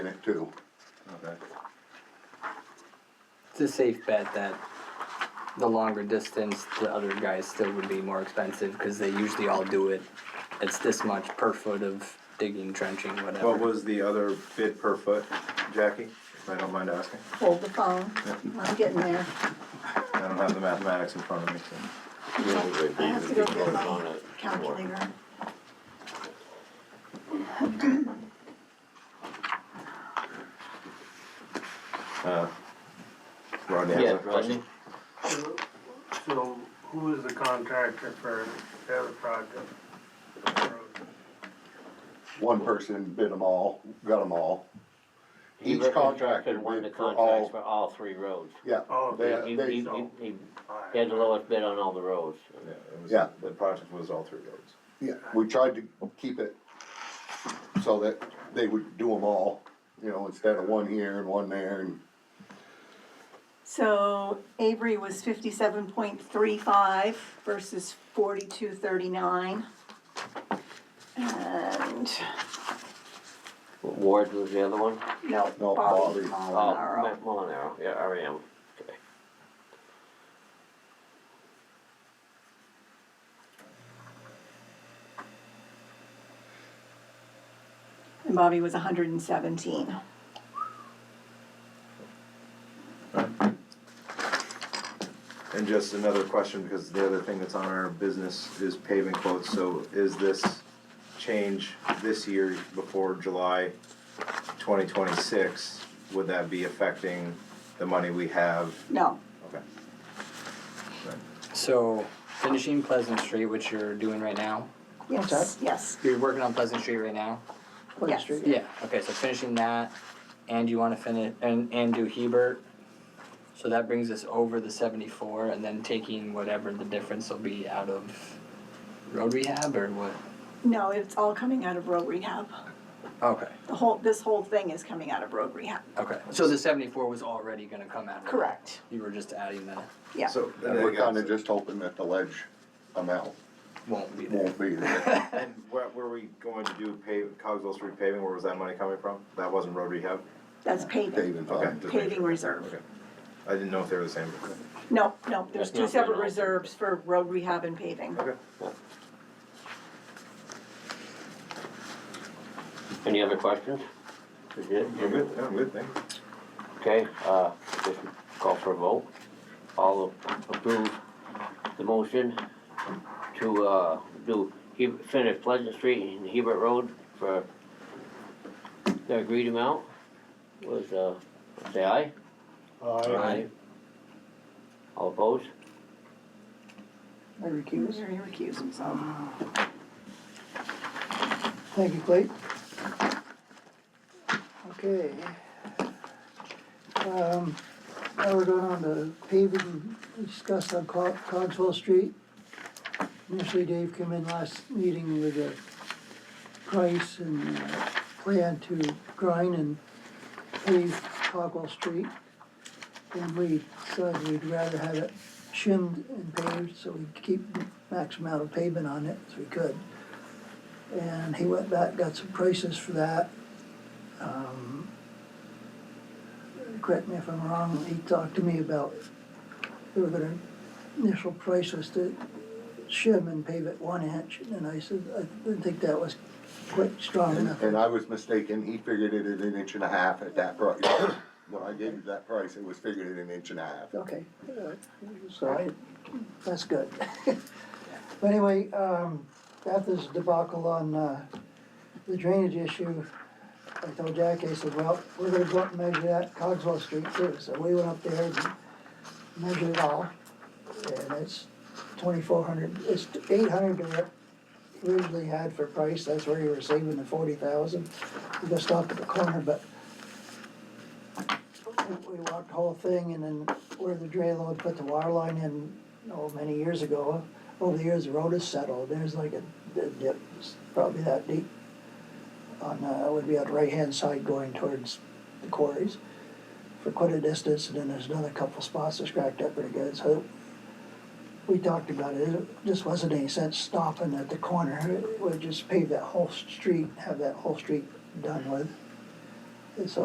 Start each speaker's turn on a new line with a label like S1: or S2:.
S1: in it too.
S2: Okay.
S3: It's a safe bet that the longer distance, the other guys still would be more expensive because they usually all do it. It's this much per foot of digging, trenching, whatever.
S2: What was the other bid per foot, Jackie? If I don't mind asking.
S4: Hold the phone, I'm getting there.
S2: I don't have the mathematics in front of me, so.
S4: I have to go get my calculator.
S2: Rodney has
S5: Yeah,
S2: a question.
S6: So who is the contractor for the other project?
S1: One person bid them all, got them all.
S5: He
S1: Each
S5: reckon-
S1: contractor
S5: reckon won the
S1: bid for
S5: contracts
S1: all-
S5: For all three roads.
S1: Yeah,
S6: Oh,
S1: they,
S6: yeah,
S5: He,
S1: they,
S5: he,
S6: so-
S5: he he had the lowest bid on all the roads.
S2: Yeah, it was,
S1: Yeah.
S2: the project was all three roads.
S1: yeah, we tried to keep it so that they would do them all, you know, instead of one here and one there and,
S4: So Avery was fifty-seven point three five versus forty-two thirty-nine. And,
S5: Ward was the other one?
S4: no,
S1: No,
S4: Bobby
S1: Bobby.
S5: Oh,
S4: Molinaro.
S5: Matt Molinaro, yeah, REM, okay.
S4: And Bobby was hundred and seventeen.
S2: And just another question, because the other thing that's on our business is paving quotes, so is this change this year before July twenty twenty-six? Would that be affecting the money we have?
S4: No,
S2: Okay.
S3: So finishing Pleasant Street, which you're doing right now.
S4: yes, yes,
S3: You're working on Pleasant Street right now.
S4: yes.
S3: Yeah. Okay. So finishing that, and you want to finish and and do Hebert. So that brings us over the seventy-four, and then taking whatever the difference will be out of road rehab or what.
S4: No, it's all coming out of road rehab.
S3: Okay.
S4: The whole, this whole thing is coming out of road rehab.
S3: Okay, so the seventy-four was already gonna come out? of it.
S4: Correct,
S3: You were just adding that,
S4: yeah.
S2: So,
S1: and we're kinda just hoping that the ledge amount
S3: won't be there.
S1: won't be there.
S2: and what were we going to do pave, Cogswell Street paving, where was that money coming from? That wasn't road rehab?
S4: That's paving,
S1: Paving
S2: Okay.
S1: fund.
S2: just making
S4: paving
S2: sure.
S4: reserve.
S2: Okay. I didn't know if they were the same.
S4: No, no, there's two
S5: That's not
S4: separate
S5: bad.
S4: reserves for road rehab and paving.
S2: Okay.
S5: Any other questions? Is it?
S2: You're good, yeah, good, thank you.
S5: Okay, uh, just call for a vote. All approve the motion to, uh, do, he, finish Pleasant Street and Hebert Road for the agreed amount was, uh, say aye? All opposed?
S7: I recuse.
S4: He recused himself.
S7: Thank you, Clayton. Okay. Um, now we're going on to paving, we discussed on Co- Cogswell Street. Initially, Dave came in last meeting with a price and uh plan to grind and pave Cogswell Street. And we decided we'd rather have it shimmed and paved, so we'd keep maximum amount of pavement on it as we could. And he went back, got some prices for that. Um, Correct me if I'm wrong, he talked to me about, they were gonna, initial price was to shim and pave it one inch, and I said, I didn't think that was quite strong
S1: And,
S7: enough.
S1: and I was mistaken, he figured it at an inch and a half at that price. When I gave you that price, it was figured at an inch and a half.
S7: Okay, uh, so I, that's good. But anyway, um, after this debacle on, uh, the drainage issue, I told Jack, I said, well, we're gonna go up and measure that Cogswell Street too, so we went up there and measured it all. And it's twenty-four hundred, it's eight hundred that we originally had for price, that's where you were saving the forty thousand. We just stopped at the corner, but we walked the whole thing and then where the drain load put the water line in, oh, many years ago. Over the years, the road has settled, there's like a a dip, it's probably that deep. On, uh, would be on the right-hand side going towards the quarries for quite a distance, and then there's another couple spots that's cracked up pretty good, so. We talked about it, it just wasn't any sense stopping at the corner, it would just pave that whole street, have that whole street done with. it's